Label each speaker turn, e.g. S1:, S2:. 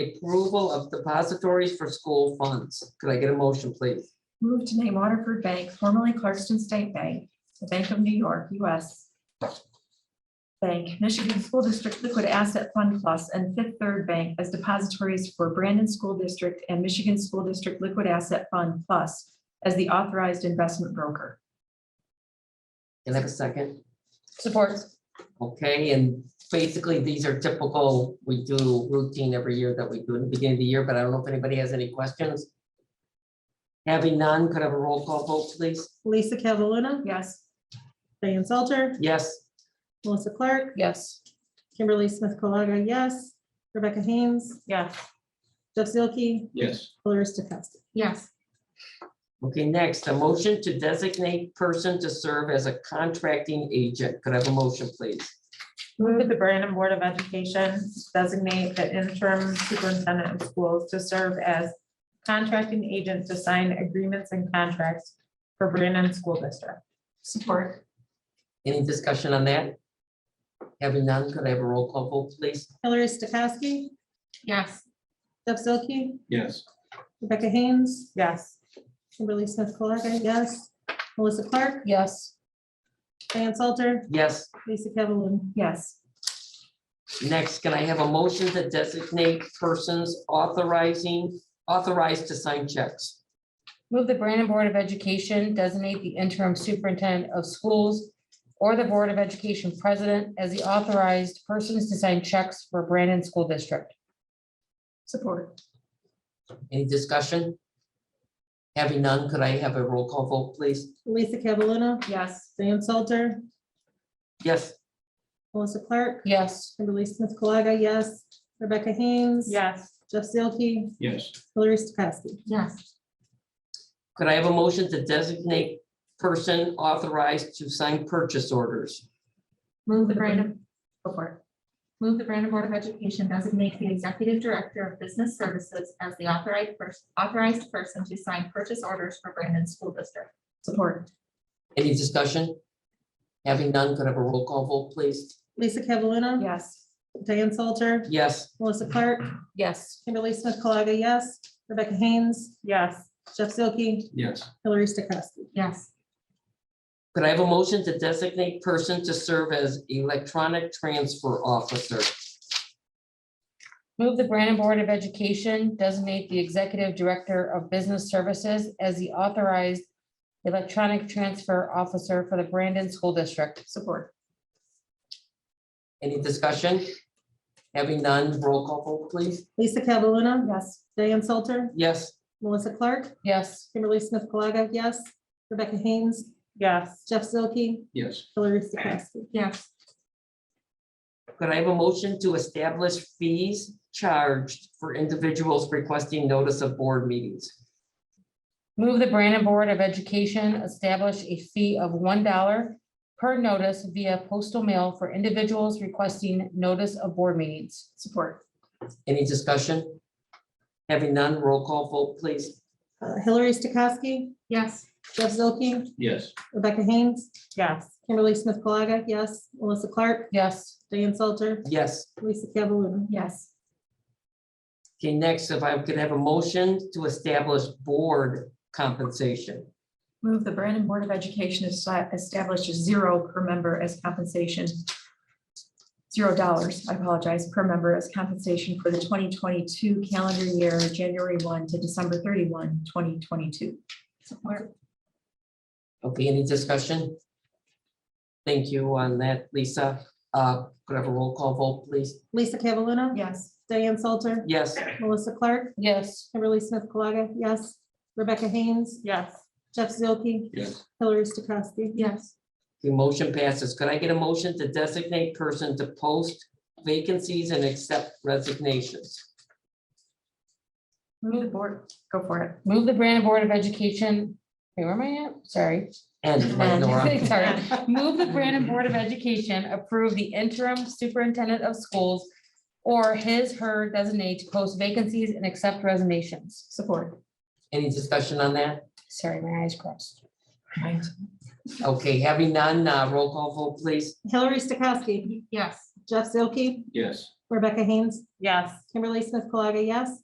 S1: Approval of depositories for school funds. Could I get a motion, please?
S2: Move to name Waterford Bank, formerly Clarkston State Bank, the Bank of New York, US. Bank, Michigan School District Liquid Asset Fund Plus, and Fifth Third Bank as depositories for Brandon School District and Michigan School District Liquid Asset Fund Plus as the authorized investment broker.
S1: Can I have a second?
S3: Support.
S1: Okay, and basically, these are typical, we do routine every year that we do in the beginning of the year, but I don't know if anybody has any questions. Having none, could I have a roll call vote, please?
S4: Lisa Cataluna,
S2: Yes,
S4: Diane Salter,
S1: Yes,
S4: Melissa Clark,
S3: Yes.
S4: Kimberly Smith Colaga, yes. Rebecca Haynes,
S2: yes.
S4: Jeff Zielke,
S5: yes,
S4: Hillary Stokowski.
S2: Yes.
S1: okay, next, a motion to designate person to serve as a contracting agent. Could I have a motion, please?
S6: Move that the Brandon Board of Education designate the interim superintendent of schools to serve as contracting agent to sign agreements and contracts for Brandon School District.
S2: Support.
S1: Any discussion on that? Having none, could I have a roll call vote, please?
S4: Hillary Stokowski,
S2: Yes.
S4: Jeff Zielke,
S5: yes,
S4: Rebecca Haynes,
S6: Yes,
S4: Kimberly Smith Colaga, yes. Melissa Clark,
S3: Yes.
S4: Diane Salter,
S1: Yes,
S4: Lisa Cataluna.
S2: Yes,
S1: next, can I have a motion to designate persons authorizing, authorized to sign checks?
S3: Move the Brandon Board of Education designate the interim superintendent of schools or the Board of Education president as the authorized persons to sign checks for Brandon School District.
S2: support.
S1: Any discussion? Having none, could I have a roll call vote, please?
S4: Lisa Cataluna,
S2: Yes.
S4: Diane Salter,
S1: Yes,
S4: Melissa Clark,
S3: Yes.
S4: Kimberly Smith Colaga, yes. Rebecca Haynes.
S6: yes,
S4: Jeff Zielke,
S5: yes,
S4: Hillary Stokowski.
S2: Yes.
S1: could I have a motion to designate person authorized to sign purchase orders?
S7: Move the Brandon, go for it. Move the Brandon Board of Education designate the Executive Director of Business Services as the authorized person, authorized person to sign purchase orders for Brandon School District.
S2: Support.
S1: Any discussion? Having none, could I have a roll call vote, please?
S4: Lisa Cataluna,
S2: Yes.
S4: Diane Salter,
S1: Yes,
S4: Melissa Clark,
S3: Yes.
S4: Kimberly Smith Colaga, yes. Rebecca Haynes,
S6: yes,
S4: Jeff Zielke,
S5: yes,
S4: Hillary Stokowski.
S7: Yes,
S1: could I have a motion to designate person to serve as electronic transfer officer?
S3: Move the Brandon Board of Education designate the executive director of business services as the authorized electronic transfer officer for the Brandon School District.
S2: Support.
S1: Any discussion? Having none, roll call vote, please?
S4: Lisa Cataluna,
S2: Yes.
S4: Diane Salter,
S1: Yes,
S4: Melissa Clark,
S3: Yes.
S4: Kimberly Smith Colaga, yes. Rebecca Haynes,
S6: yes,
S4: Jeff Zielke,
S5: yes,
S4: Hillary Stokowski.
S7: yes,
S1: could I have a motion to establish fees charged for individuals requesting notice of board meetings?
S3: Move the Brandon Board of Education establish a fee of one dollar per notice via postal mail for individuals requesting notice of board meetings.
S2: Support.
S1: Any discussion? Having none, roll call vote, please.
S4: Uh, Hillary Stokowski,
S7: yes,
S4: Jeff Zielke,
S5: yes,
S4: Rebecca Haynes,
S6: yes,
S4: Kimberly Smith Colaga, yes. Melissa Clark,
S3: Yes,
S4: Diane Salter,
S1: Yes.
S4: Lisa Cataluna.
S2: Yes.
S1: Okay, next, if I could have a motion to establish board compensation.
S2: Move the Brandon Board of Education is- establishes zero per member as compensation. Zero dollars, I apologize, per member as compensation for the twenty twenty-two calendar year, January one to December 31, 2022.
S7: support,
S1: Okay, any discussion? Thank you on that, Lisa. Uh, could I have a roll call vote, please?
S4: Lisa Cataluna,
S2: Yes.
S4: Diane Salter,
S1: Yes,
S4: Melissa Clark,
S3: yes,
S4: Kimberly Smith Colaga, yes. Rebecca Haynes,
S6: yes,
S4: Jeff Zielke,
S5: yes,
S4: Hillary Stokowski.
S7: yes,
S1: the motion passes. Could I get a motion to designate person to post vacancies and accept resignations?
S2: Move the board, go for it.
S3: move the Brandon Board of Education, wait, where am I at? Sorry.
S1: And right, Nora?
S3: Sorry. Move the Brandon Board of Education approve the interim superintendent of schools or his, her designate to post vacancies and accept resignations.
S2: Support.
S1: Any discussion on that?
S3: Sorry, my eyes crossed.
S1: Okay, having none, uh, roll call vote, please.
S4: Hillary Stokowski,
S7: yes,
S4: Jeff Zielke,
S5: yes,
S4: Rebecca Haynes,
S6: Yes.
S4: Kimberly Smith Colaga, yes.